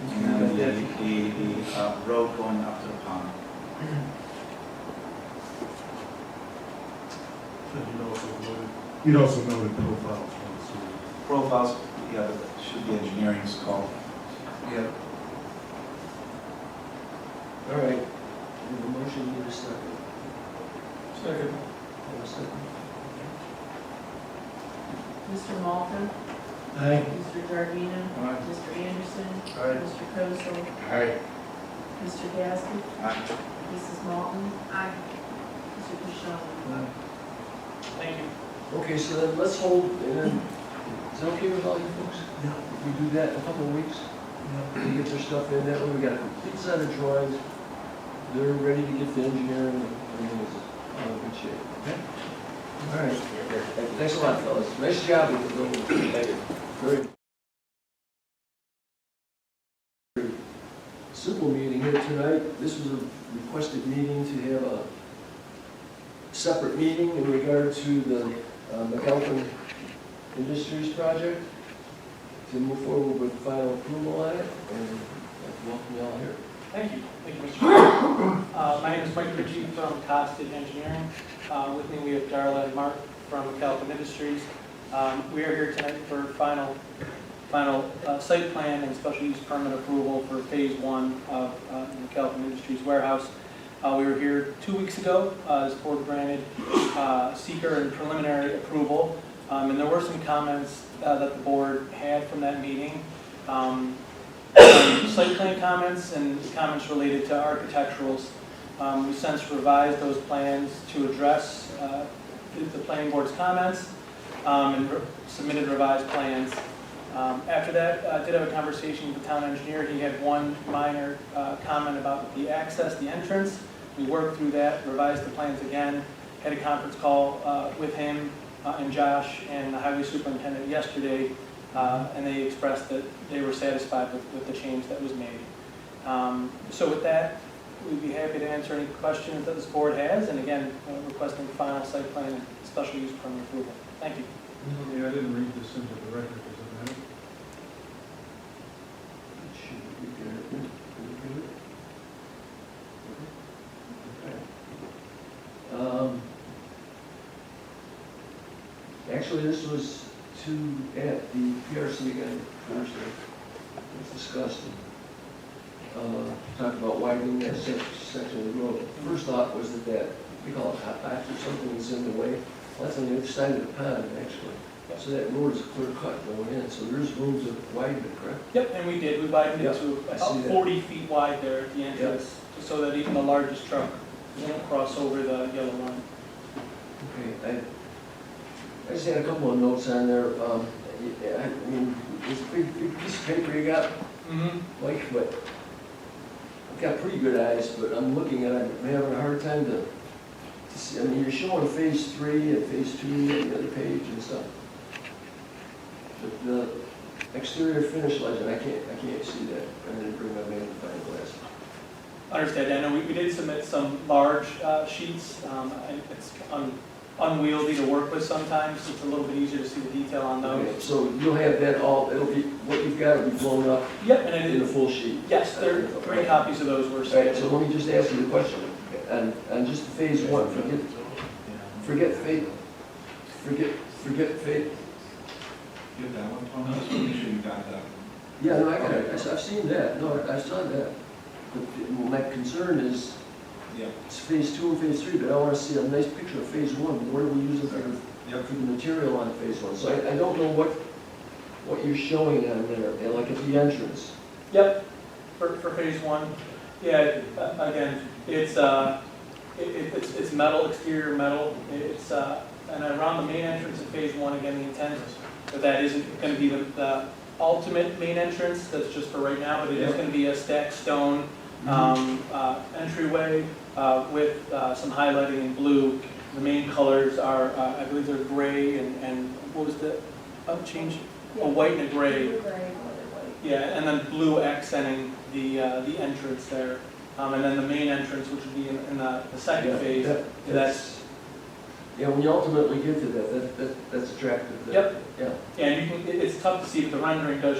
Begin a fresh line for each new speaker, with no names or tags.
And then the, the, the uh, road going up to the pond.
You'd also know the profiles from the sewer.
Profiles, yeah, that should be engineering's call.
Yeah. All right, we have a motion, need a second. Second. Have a second.
Mr. Malta?
Aye.
Mr. Giardina?
Aye.
Mr. Anderson?
Aye.
Mr. Kozel?
Aye.
Mr. Gaskin?
Aye.
Mrs. Malton? Aye. Mr. Pashon?
Thank you.
Okay, so then let's hold, and then, is that okay with all you folks?
Yeah.
If we do that in a couple of weeks, we get their stuff in, that way we got a complete set of drawings, they're ready to get the engineering, and everything's in good shape. Okay. All right, thanks a lot, fellas, nice job with the building. Thank you. Very. Simple meeting here tonight, this was a requested meeting to have a separate meeting in regard to the uh, McAlpin Industries project to move forward with final approval on it, and I'd welcome you all here.
Thank you. Thank you, Mr. Chairman. Uh, My name is Mike Ritchie from Cobb State Engineering. Uh, With me, we have Darla and Mark from Calvin Industries. Um, We are here tonight for final, final uh, site plan and special use permit approval for Phase One of uh, the Calvin Industries warehouse. Uh, We were here two weeks ago, uh, this board granted uh, seeker and preliminary approval. Um, And there were some comments uh, that the board had from that meeting. Um, site plan comments and comments related to architecturals. Um, We since revised those plans to address uh, the the planning board's comments um, and re- submitted revised plans. Um, After that, I did have a conversation with the town engineer. He had one minor uh, comment about the access, the entrance. We worked through that, revised the plans again, had a conference call uh, with him uh, and Josh and the highway superintendent yesterday uh, and they expressed that they were satisfied with, with the change that was made. Um, So with that, we'd be happy to answer any questions that this board has, and again, uh, requesting final site plan and special use permit approval. Thank you.
Yeah, I didn't read this into the record, does it matter?
Should we be good? Are we good? Okay. Um, Actually, this was to, at the PRC again, Thursday, it was discussed, and, uh, talked about widening that sec- section of the road. First thought was that that, we call it hot patch or something that's in the way, Well, that's on the other side of the pond, actually. So that road is clear cut going in, so there's room to widen it, correct?
Yep, and we did, we widened it to
I
about
see that.
40 feet wide there at the entrance, just so that even the largest truck won't cross over the yellow line.
Okay, I, I just had a couple of notes on there, um, I, I mean, this big, big piece of paper you got,
Mm-hmm.
Mike, but I've got pretty good eyes, but I'm looking at it, I'm having a hard time to, to see, I mean, you're showing phase three and phase two on the other page and stuff. But the exterior finish legend, I can't, I can't see that, I'm gonna bring my magnifying glass.
Understand, I know we, we did submit some large uh, sheets, um, and it's un- unwieldy to work with sometimes, it's a little bit easier to see the detail on those.
Okay, So you'll have that all, it'll be, what you've got will be blown up
Yep, and I
in
did
a full sheet.
Yes, there, three copies of those were
All right, so
submitted.
let me just ask you a question, and, and just phase one, forget, forget fate, forget, forget fate.
Give that one, Tom, just make sure you got that.
Yeah, no, I got it, I- I've seen that, no, I saw that. But the- my concern is,
Yeah,
it's phase two and phase three, but I wanna see a nice picture of phase one, what are we using for,
yep.
for the material on phase one? So I, I don't know what, what you're showing on there, and like at the entrance.
Yep, for, for phase one, yeah, uh, again, it's, uh, it, it- it's, it's metal, exterior metal, it's, uh, and around the main entrance of phase one, again, the intent is that that isn't gonna be the, the ultimate main entrance, that's just for right now, but it is
Yeah.
gonna be a stacked stone, um, uh, entryway, uh, with, uh, some highlighting in blue. The main colors are, uh, I believe they're gray and, and what was the, oh, change, a white and a gray.
Blue, gray, white.
Yeah, and then blue accenting the, uh, the entrance there. Um, and then the main entrance, which would be in, in the, the second
Yeah,
phase.
that-
That's,
Yeah, when you ultimately get to that, that, that, that's attractive. that-
Yep.
Yeah.
yeah, you can, it- it's tough to see, but the rendering does